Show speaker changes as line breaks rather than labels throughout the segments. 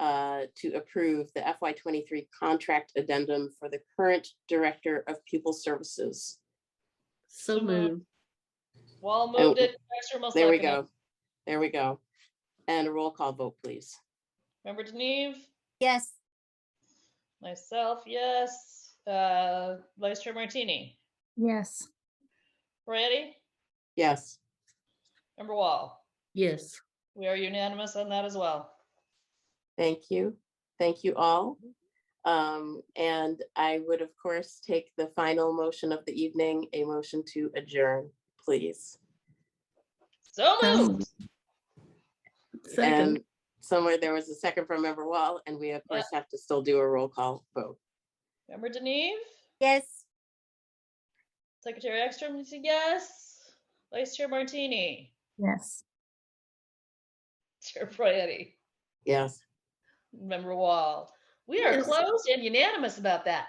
uh, to approve the FY twenty-three contract addendum for the current Director of Pupil Services.
So moved.
Wall
Oh,
moved it. Extra will
There we
second it.
go. There we go. And a roll call vote, please.
Member Deneve,
Yes.
myself, yes. Uh, Vice Chair Martini,
Yes.
Moretti,
Yes.
Member Wall.
Yes.
We are unanimous on that as well.
Thank you. Thank you all. Um, and I would, of course, take the final motion of the evening, a motion to adjourn, please.
So
So
moved.
Second.
And somewhere there was a second from Member Wall, and we of course have to still do a roll call vote.
Member Deneve,
Yes.
Secretary Ekstrom, you say yes. Vice Chair Martini,
Yes.
Chair Moretti,
Yes,
Member Wall. We are
Yes.
closed and unanimous about that.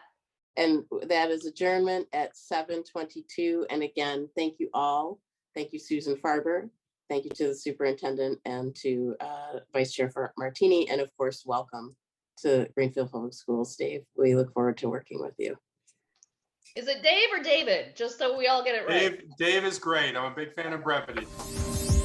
and that is adjournment at seven twenty-two. And again, thank you all. Thank you, Susan Farber. Thank you to the superintendent and to uh, Vice Chair Fer- Martini, and of course, welcome to Greenfield Public Schools, Dave. We look forward to working with you.
Is it Dave or David? Just so we all get it right.
Dave, Dave is great. I'm a big fan of brevity.